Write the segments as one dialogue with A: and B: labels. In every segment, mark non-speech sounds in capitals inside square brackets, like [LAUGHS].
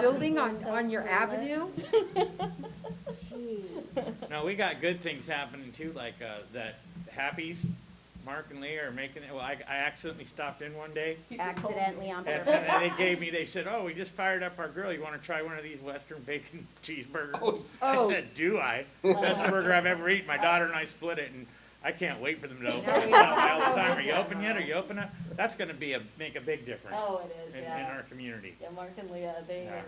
A: building on, on your avenue?
B: No, we got good things happening too, like, uh, that Happy's, Mark and Lee are making it, well, I, I accidentally stopped in one
C: [LAUGHS]
B: day.
D: Accidentally on
B: And,
D: purpose.
B: and they gave me, they said, oh, we just fired up our grill, you wanna try one of these Western bacon [LAUGHS] cheeseburgers? I
A: Oh.
B: said, do I? Best burger I've ever eaten, my daughter and I split it, and I can't wait for them to open
A: Now
B: it.
A: we-
B: Stop by all the time, are you open yet, are you open up? That's gonna be a, make a big difference
C: Oh, it is,
B: in, in our
C: yeah.
B: community.
C: Yeah, Mark and Leah, they
B: Yeah.
C: are,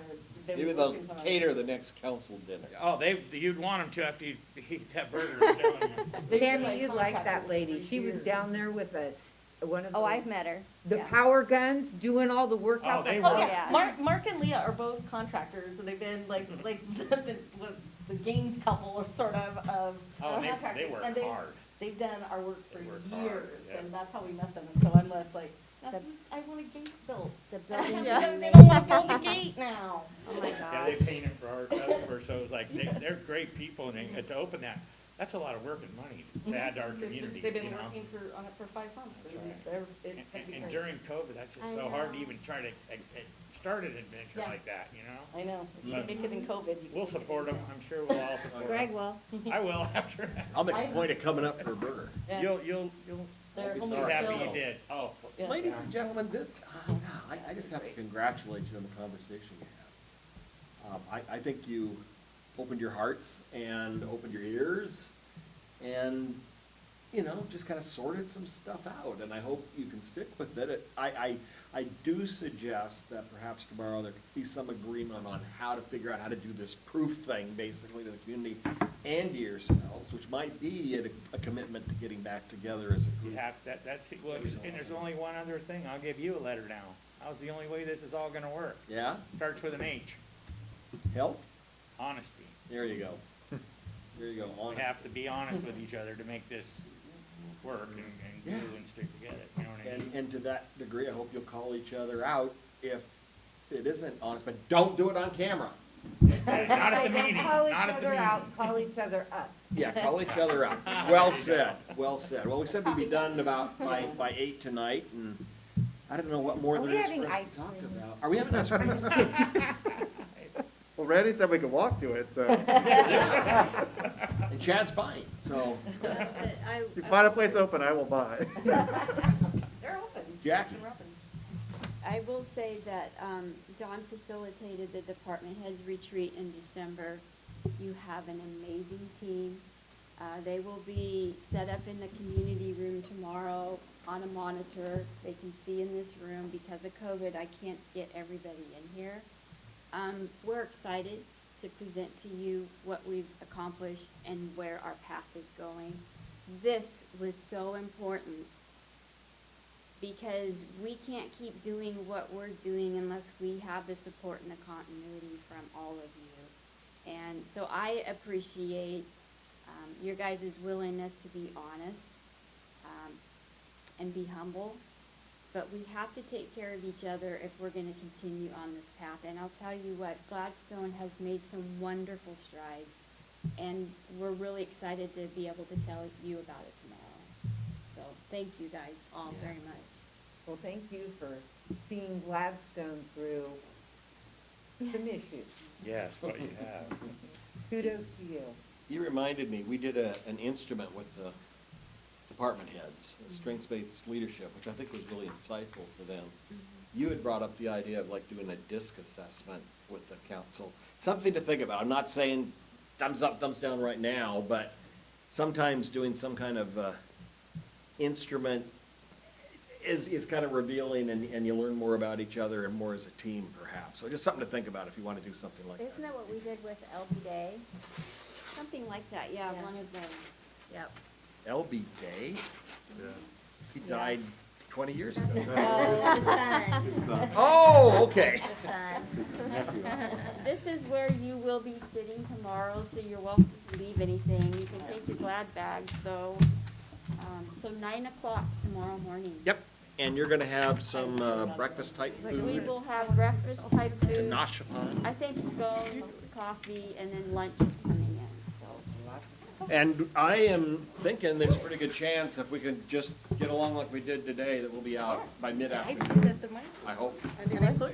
C: they
E: Maybe
C: were
E: they'll
C: working hard.
E: cater the next council dinner.
B: Oh, they, you'd want them to after you [LAUGHS] eat that burger, I'm telling you.
C: They were
A: Tammy, you'd like that
C: contractors
A: lady.
C: for
A: She was
C: years.
A: down there with us, one of
D: Oh, I've
A: those,
D: met her.
A: the
D: yeah.
A: power guns, doing all the work
B: Oh,
A: out
B: they
A: the
C: Oh,
B: were.
D: Yeah.
C: yeah, Mark, Mark and Leah are both contractors, and they've been like,
B: Mm-hmm.
C: like [LAUGHS] the, the, what, the Gaines couple or sort of, of
B: Oh,
C: of
B: and they- they
C: contractors,
B: work
C: and they-
B: hard.
C: They've done our work
B: They
C: for
B: work
C: years,
B: hard, yeah.
C: and that's how we met them, and so I'm less like, "Now
D: The-
C: this- I want a gate built.
D: [LAUGHS]
C: [LAUGHS]
D: The building
C: They
D: committee.
C: don't wanna build a
D: [LAUGHS]
C: gate now.
D: Oh, my
B: Yeah,
D: God.
B: they paint it for our customers, so it's like, they, they're great people, and they- to open that, that's a lot of work and money to add to our
C: They've-
B: community, you
C: They've been
B: know?
C: working for, on it for five months,
B: That's
C: and
B: right.
C: they're,
B: And,
C: it's gonna
B: and-
C: be
B: and
C: great.
B: during COVID, that's just
D: I
B: so hard to
D: know.
B: even try to, uh, uh, start an adventure
C: Yeah.
B: like that, you know?
C: I know, if you
B: But-
C: can make it in COVID. you can
B: Mm-hmm. We'll
C: make it in
B: support them,
C: now.
B: I'm sure we'll all support
D: Greg
B: them.
D: will.
A: [LAUGHS]
B: I will after, [LAUGHS] that.
E: I'll make
C: I-
E: a point of coming up for a burger.
C: Yeah.
B: you'll, you'll, you'll
C: They're
E: be
C: home
B: be
E: sorry.
B: happy you
C: built.
B: did, oh.
C: Yeah.
E: Ladies and gentlemen, this, oh, no, I, I just have to congratulate you on the conversation you had. Um, I, I think you opened your hearts and opened your ears and, you know, just kind of sorted some stuff out, and I hope you can stick with it. it. I, I, I do suggest that perhaps tomorrow there could be some agreement on how to figure out how to do this proof thing, basically, to the community and to yourselves, which might be a, a commitment to getting back together as a
B: You
E: group.
B: have, that, that's, well, and there's only one other thing, I'll give you a letter now. That was the only way this is all gonna work.
E: Yeah?
B: Starts with an H,
E: Help?
B: honesty.
E: There you go. There you go.
B: [LAUGHS] We
E: Honest.
B: have to be honest with each other to make this work and, and do and stick together, you know what I mean?
E: And, and to that degree, I hope you'll call each other out if it isn't honest, but don't do it on camera.
B: Exactly. Not at the
A: They don't
B: meeting,
A: Call each
B: not at the
A: other
B: meeting.
A: out, call each other up.
E: Yeah, call each other
B: [LAUGHS]
E: out. Well said, well said. Well, we said we'd be done about by, by eight tonight and I don't know what more
A: Are
E: there
A: we
E: is for
A: having
E: us
A: ice
E: to talk
A: cream?
E: about. Are we having ice cream?
A: [LAUGHS]
F: Well, Randy said we could walk to it, so
E: And Chad's buying, so
F: if you find a place open, I will buy.
C: They're open.
E: Jackie.
C: They're open.
G: I will say that um, John facilitated the department heads retreat in December. You have an amazing team. Uh, They will be set up in the community room tomorrow on a monitor. They can see in this room. Because of COVID, I can't get everybody in here. Um, We're excited to present to you what we've accomplished and where our path is going. This was so important because we can't keep doing what we're doing unless we have the support and the continuity from all of you. And so I appreciate um, your guys' willingness to be honest um, and be humble. But we have to take care of each other if we're gonna continue on this path. And I'll tell you what, Gladstone has made some wonderful strides. And we're really excited to be able to tell you about it tomorrow. So, thank you guys all very much.
A: [LAUGHS] Well, thank you for seeing Gladstone through some issues.
B: Yes, what you have.
A: Kudos to you.
E: You reminded me, we did a, an instrument with the department heads, strengths-based leadership, which I think was really insightful for them. You had brought up the idea of like doing a disc assessment with the council, something to think about. I'm not saying thumbs up, thumbs down right now, but sometimes doing some kind of, uh, instrument is, is kind of revealing and, and you learn more about each other and more as a team perhaps. So just something to think about if you want to do something like that.
G: Isn't that what we did with LB Day? Something like that, yeah,
D: Yeah.
G: one of those. Yep.
E: LB Day? He died twenty years ago.
D: Oh, the sun,
E: Oh, okay.
D: the sun.
G: [LAUGHS] This is where you will be sitting tomorrow, so you're welcome to leave anything. You can take your glad bag, so, um, so nine o'clock tomorrow morning.
E: Yep, and you're gonna have some uh, breakfast type
G: We
E: food
G: will have breakfast type
E: to
G: food.
E: nosh upon.
G: I think scones, coffee, and then lunch is coming in, so.
E: And I am thinking there's a pretty good chance if we can just get along like we did today, that we'll be out by mid-afternoon. I hope.